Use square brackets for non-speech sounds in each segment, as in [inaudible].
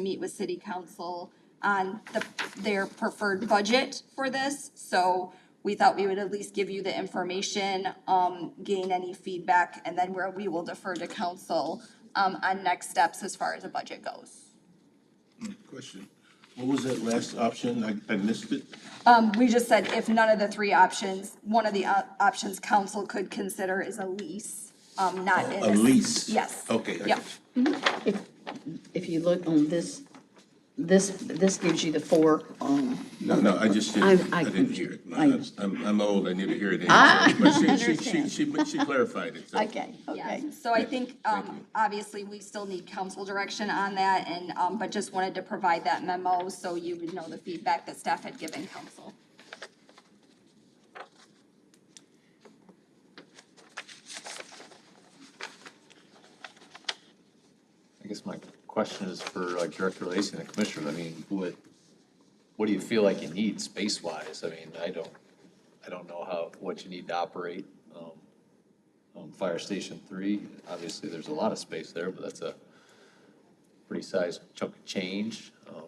meet with city council on the, their preferred budget for this. So we thought we would at least give you the information, um, gain any feedback, and then where we will defer to council, um, on next steps as far as the budget goes. Question, what was that last option? I, I missed it. Um, we just said if none of the three options, one of the op- options council could consider is a lease, um, not in. A lease? Yes. Okay. I Yep. got you. If, if you look on this, this, this gives you the four, um, No, no, I just didn't, I- I I- didn't hear it. No, I- that's- I'm, I'm old, I need to hear it. I understand. She, she, she clarified it, so. okay, okay. Yes, so I think, Thank um, you. obviously, we still need council direction on that, and, um, but just wanted to provide that memo so you would know the feedback that staff had given council. I guess my question is for like Director Lacy and the Commissioners, I mean, what, what do you feel like you need space-wise? I mean, I don't, I don't know how, what you need to operate. um, um, Fire Station Three, obviously, there's a lot of space there, but that's a pretty sized chunk of change. um,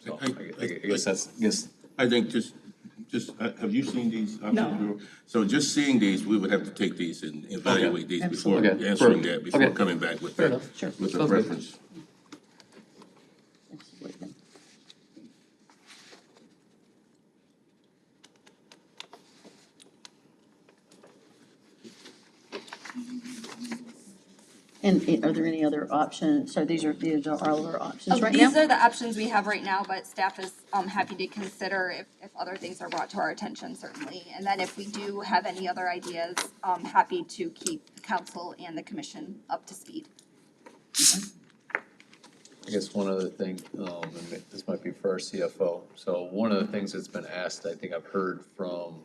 So I gue- I guess that's, I guess, I think just, just, uh, have you seen these options? No. So just seeing these, we would have to take these and evaluate these before Absolutely. Okay. answering Fair. that, before Okay. coming back with Fair that, enough. Sure. with a Sounds good. reference. And i- are there any other options? So these are, these are all our options Um, right These now? are the options we have right now, but staff is, um, happy to consider if, if other things are brought to our attention, certainly. And then if we do have any other ideas, um, happy to keep council and the commission up to speed. I guess one other thing, um, and this might be for our CFO. So one of the things that's been asked, I think I've heard from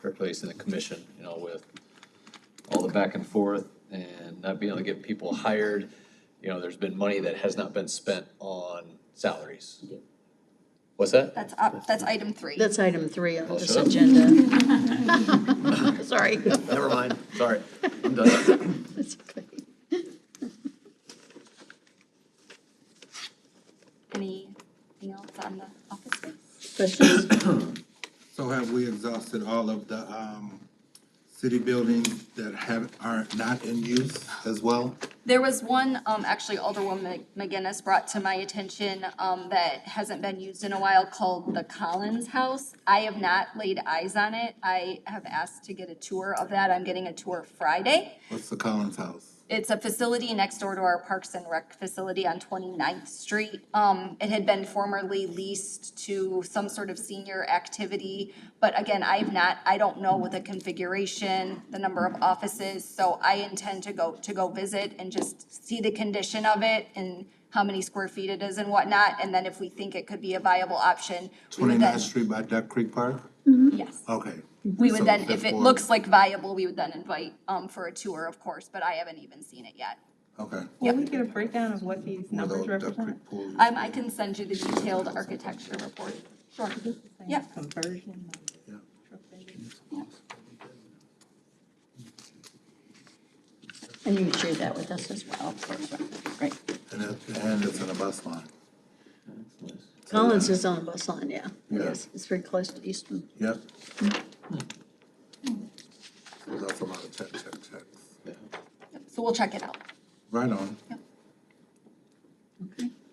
her place in the commission, you know, with all the back and forth and not being able to get people hired. You know, there's been money that has not been spent on salaries. What's that? That's up, that's item three. That's item three on Oh, this shut up. agenda. [laughs] Sorry. Never mind, sorry, I'm done. That's okay. Anything else on the office space? Questions? So have we exhausted all of the, um, city buildings that have, are not in use as well? There was one, um, actually Alderwoman McGinnis brought to my attention, um, that hasn't been used in a while called the Collins House. I have not laid eyes on it. I have asked to get a tour of that. I'm getting a tour Friday. What's the Collins House? It's a facility next door to our Parks and Rec facility on 29th Street. Um, it had been formerly leased to some sort of senior activity. But again, I've not, I don't know what the configuration, the number of offices, so I intend to go, to go visit and just see the condition of it and how many square feet it is and whatnot, and then if we think it could be a viable option, we would then, Twenty-ninth Street by Duck Creek Park? yes. Okay. Mm-hmm. We would So then, if it therefore- looks like viable, we would then invite, um, for a tour, of course, but I haven't even seen it yet. Okay. Will we get a breakdown of what these Where the numbers Duck represent? Creek pool is. Um, I can send you the detailed architecture report. Sure. Yeah, Conversion. Yeah. And you can share that with us as well, of course. Great. And it, and it's in a bus line. Collins is on a bus line, yeah. Yeah. Yes, it's very close to Easton. Yep. Mm-hmm. So that's a lot of check, check, checks. so we'll check it out. Right on.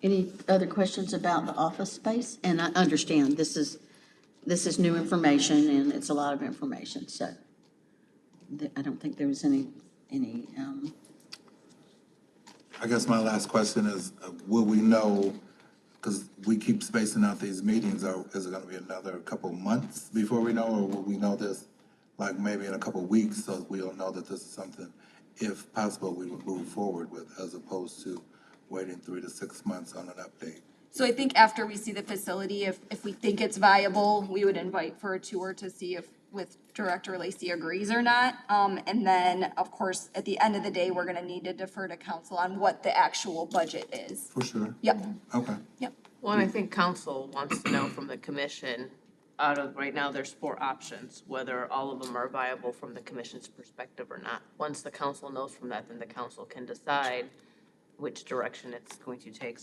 Any other questions about the office space? And I understand this is, this is new information and it's a lot of information, so th- I don't think there was any, any, um, I guess my last question is, uh, will we know, because we keep spacing out these meetings, or is it gonna be another couple months before we know, or will we know this, like, maybe in a couple weeks, so we'll know that this is something, if possible, we would move forward with, as opposed to waiting three to six months on an update? So I think after we see the facility, if, if we think it's viable, we would invite for a tour to see if with Director Lacy agrees or not. Um, and then, of course, at the end of the day, we're gonna need to defer to council on what the actual budget is. For sure. Yep, Okay. yep. Well, and I think council wants to know from the commission, out of, right now, there's four options, whether all of them are viable from the commission's perspective or not. Once the council knows from that, then the council can decide which direction it's going to take. So